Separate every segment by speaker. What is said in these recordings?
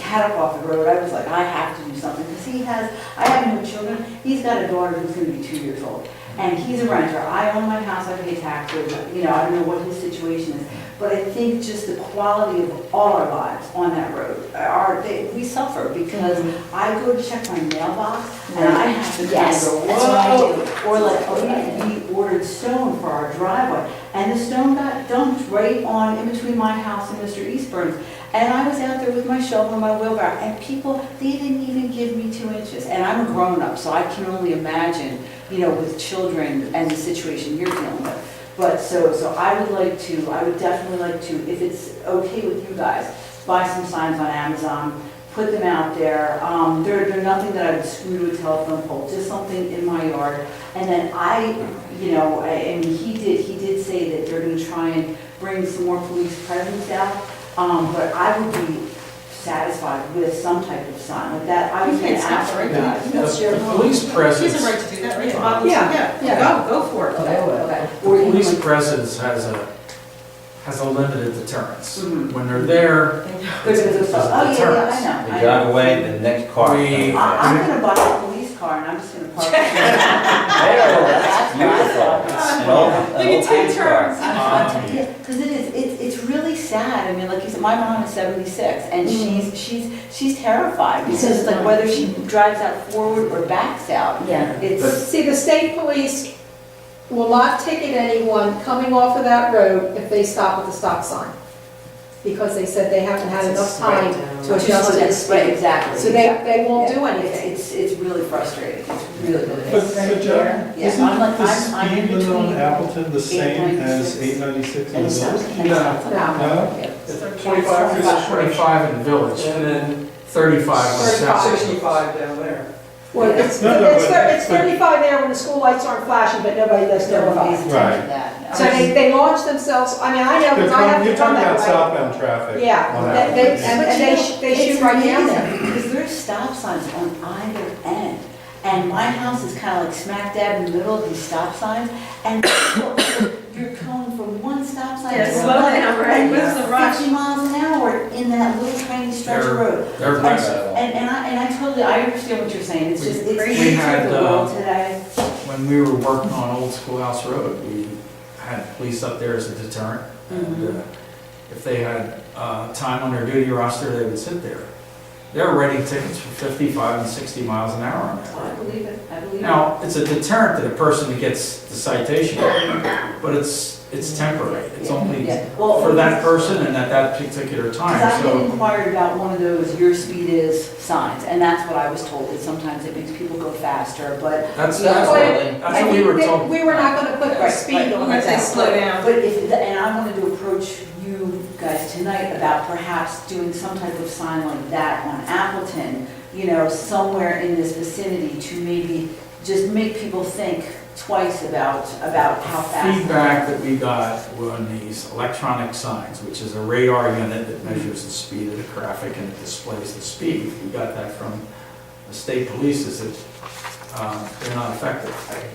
Speaker 1: paddock off the road, I was like, I have to do something, because he has, I have no children, he's got a daughter who's gonna be two years old, and he's a renter, I own my house, I pay taxes, you know, I don't know what his situation is, but I think just the quality of all our lives on that road, are, they- we suffer, because I go to check my mailbox, and I have to kind of
Speaker 2: Yes,
Speaker 1: go,
Speaker 2: that's what I
Speaker 1: whoa,
Speaker 2: do.
Speaker 1: or like, oh, yeah, we ordered stone for our driveway, and the stone got dumped right on, in between my house and Mr. Eastburn's. And I was out there with my shovel and my wheelbarrow, and people, they didn't even give me two inches. And I'm a grown-up, so I can only imagine, you know, with children and the situation you're dealing with. But so, so I would like to, I would definitely like to, if it's okay with you guys, buy some signs on Amazon, put them out there. Um, they're, they're nothing that I would screw to a telephone pole, just something in my yard. And then I, you know, I- and he did, he did say that they're gonna try and bring some more police presence out. Um, but I would be satisfied with some type of sign like that. I was
Speaker 3: You
Speaker 1: gonna
Speaker 3: can't stop
Speaker 1: ask.
Speaker 3: for it.
Speaker 1: Yeah.
Speaker 3: You
Speaker 1: No.
Speaker 3: That's your
Speaker 4: The
Speaker 3: home.
Speaker 4: police
Speaker 3: She has a
Speaker 4: presence,
Speaker 3: right to do that, right? Bob,
Speaker 2: Yeah, yeah.
Speaker 3: Yeah, go, go for it.
Speaker 2: I
Speaker 1: Or
Speaker 2: will.
Speaker 4: the
Speaker 1: even
Speaker 4: police
Speaker 1: like-
Speaker 4: presence has a, has a limited deterrence.
Speaker 3: Mm-hmm.
Speaker 1: Mhm.
Speaker 4: When they're there,
Speaker 1: They're gonna go, oh, yeah, yeah, I know.
Speaker 5: They
Speaker 1: I
Speaker 5: drive
Speaker 1: know."
Speaker 5: away, the next car.
Speaker 4: We-
Speaker 1: I- I'm gonna buy a police car and I'm just gonna park. it.
Speaker 5: There,
Speaker 1: That's
Speaker 5: that's beautiful. An old- an
Speaker 3: Look at
Speaker 5: old
Speaker 3: two
Speaker 5: police car.
Speaker 3: turns.
Speaker 4: um,
Speaker 1: Yeah, because it is, it's, it's really sad, I mean, like you said, my mom is seventy-six, and she's, she's, she's terrified, because it's like whether she drives out forward or backs out,
Speaker 2: Yeah.
Speaker 1: it's,
Speaker 4: But-
Speaker 6: See, the state police will not ticket anyone coming off of that road if they stop at the stop sign. Because they said they haven't had enough time to
Speaker 1: it's just
Speaker 6: adjust
Speaker 1: like
Speaker 6: to the
Speaker 1: this, right,
Speaker 6: speed.
Speaker 1: exactly.
Speaker 6: So they, they won't do
Speaker 1: Yeah.
Speaker 6: anything.
Speaker 1: It's, it's it's really frustrating, it's really, really.
Speaker 7: But,
Speaker 1: frustrating.
Speaker 7: but Jack,
Speaker 1: Yeah,
Speaker 7: isn't
Speaker 1: I'm like-
Speaker 7: the
Speaker 1: I'm- I'm in
Speaker 7: speed limit on
Speaker 1: between
Speaker 7: Appleton the same as
Speaker 1: 896.
Speaker 7: eight ninety-six on
Speaker 1: And
Speaker 7: the
Speaker 1: it's not,
Speaker 7: village?
Speaker 1: and it's not.
Speaker 7: No?
Speaker 1: Yeah.
Speaker 8: Twenty-five is
Speaker 4: it's twenty-five in the village, and then thirty-five in the south.
Speaker 8: sixty-five down there.
Speaker 6: Well, it's,
Speaker 7: No, no,
Speaker 6: it's
Speaker 7: but-
Speaker 6: thir- it's thirty-five there when the school lights aren't flashing, but nobody does
Speaker 1: No, nobody's
Speaker 6: notify.
Speaker 1: attention to
Speaker 7: Right.
Speaker 1: that, no.
Speaker 6: So they, they launch themselves, I mean, I know,
Speaker 7: They're
Speaker 6: because I have
Speaker 7: talking-
Speaker 6: to
Speaker 7: You're
Speaker 6: come
Speaker 7: talking
Speaker 6: that
Speaker 7: about
Speaker 6: way.
Speaker 7: southbound traffic.
Speaker 6: Yeah,
Speaker 7: on
Speaker 6: they- they-
Speaker 7: Appleton.
Speaker 6: and- and they sh- they shoot right down there.
Speaker 1: Because there's stop signs on either end, and my house is kind of like smack dab in the middle of these stop signs, and you're going from one stop sign to
Speaker 3: Yeah,
Speaker 1: another.
Speaker 3: slow down, right?
Speaker 1: and
Speaker 3: Where's the
Speaker 1: you're
Speaker 3: rush?
Speaker 1: Fifty miles an hour in that little tiny stretch
Speaker 4: They're-
Speaker 1: of road.
Speaker 4: They're present.
Speaker 1: And, and I, and I totally, I understand what you're saying, it's
Speaker 4: We-
Speaker 1: just, it's
Speaker 4: we
Speaker 1: crazy
Speaker 4: had,
Speaker 1: the
Speaker 4: uh,
Speaker 1: world today.
Speaker 4: When we were working on Old Schoolhouse Road, we had police up there as a deterrent. And
Speaker 3: Mm-hmm.
Speaker 4: uh, If they had uh, time on their duty roster, they would sit there. They're writing tickets for 55 and 60 miles an hour on that
Speaker 1: I
Speaker 4: road.
Speaker 1: believe it, I believe it.
Speaker 4: Now, it's a deterrent to the person that gets the citation, but it's, it's temporary. It's only
Speaker 1: Yeah. Well,
Speaker 4: for that person and at that particular
Speaker 1: Because I
Speaker 4: time,
Speaker 1: had
Speaker 4: so.
Speaker 1: inquired about one of those your speed is signs, and that's what I was told, is sometimes it makes people go faster, but,
Speaker 4: That's,
Speaker 1: Yeah.
Speaker 4: that's what, that's what we were told.
Speaker 6: We were not gonna put the
Speaker 1: Right, right.
Speaker 3: I'm
Speaker 6: speed on
Speaker 3: gonna
Speaker 6: that.
Speaker 3: say slow down.
Speaker 1: but if, and I wanted to approach you guys tonight about perhaps doing some type of sign like that on Appleton, you know, somewhere in this vicinity to maybe just make people think twice about, about how fast.
Speaker 4: Feedback that we got were on these electronic signs, which is a radar unit that measures the speed of the traffic and it displays the speed. We got that from the state police, is that um, they're not effective.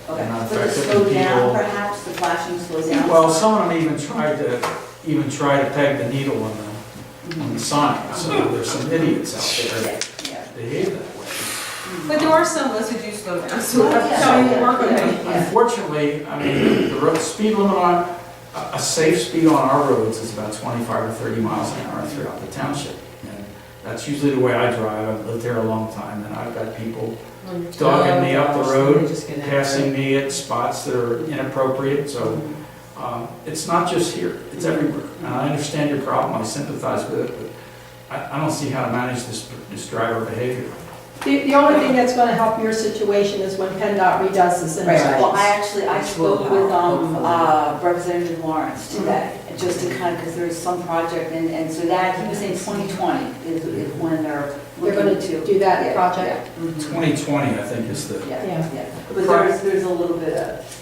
Speaker 1: Okay,
Speaker 4: They're not
Speaker 1: so just
Speaker 4: effective
Speaker 1: slow
Speaker 4: and
Speaker 1: down,
Speaker 4: people.
Speaker 1: perhaps, the flashing slows down.
Speaker 4: Well, some of them even tried to, even try to peg the needle on the, on the sign, so there's some idiots out there
Speaker 1: Yeah, yeah.
Speaker 4: that behave that way.
Speaker 3: But there are some of us who do slow down, so
Speaker 1: Oh,
Speaker 3: I'm
Speaker 1: yeah.
Speaker 3: telling you, work on
Speaker 1: Yeah.
Speaker 3: it.
Speaker 4: Unfortunately, I mean, the road, speed limit on, a a safe speed on our roads is about 25 or 30 miles an hour throughout the township. And that's usually the way I drive, I've lived there a long time, and I've got people dogging me up the road, passing me at spots that are inappropriate, so um, it's not just here, it's everywhere. And I understand your problem, I sympathize with it, but I I don't see how to manage this this driver behavior.
Speaker 6: The, the only thing that's gonna help your situation is when PennDOT redoes this
Speaker 1: Right, well, I actually,
Speaker 6: intersection.
Speaker 1: I
Speaker 2: Which will
Speaker 1: spoke with
Speaker 2: help,
Speaker 1: um,
Speaker 2: hopefully.
Speaker 1: uh, Representative Lawrence today, just to kind of, because there's some project, and, and so that, he was saying 2020 is is when they're
Speaker 6: They're gonna
Speaker 1: looking to.
Speaker 6: do
Speaker 1: Yeah,
Speaker 6: that project.
Speaker 1: Mhm.
Speaker 4: 2020, I think, is the
Speaker 1: Yeah,
Speaker 6: Yeah.
Speaker 1: yeah, but there's, there's a little bit of,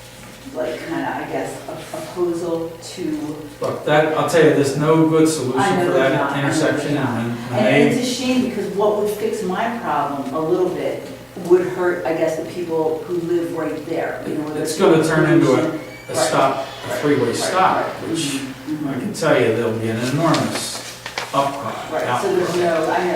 Speaker 1: like, kind of, I guess, a- opposal to
Speaker 4: Look, that, I'll tell you, there's no good
Speaker 1: I know
Speaker 4: solution for
Speaker 1: there's not, I
Speaker 4: that
Speaker 1: know
Speaker 4: intersection,
Speaker 1: there's not.
Speaker 4: and when- when
Speaker 1: And
Speaker 4: they,
Speaker 1: it's a shame because what would fix my problem a little bit would hurt, I guess, the people who live right there, you know. whether
Speaker 4: It's gonna turn into a- a
Speaker 1: Right.
Speaker 4: stop, a three-way
Speaker 1: Right,
Speaker 4: stop,
Speaker 1: right.
Speaker 4: which
Speaker 1: Mhm, mhm.
Speaker 4: I can tell you, there'll be an enormous
Speaker 1: Right,
Speaker 4: outcry out
Speaker 1: so there's
Speaker 4: there.
Speaker 1: no, I know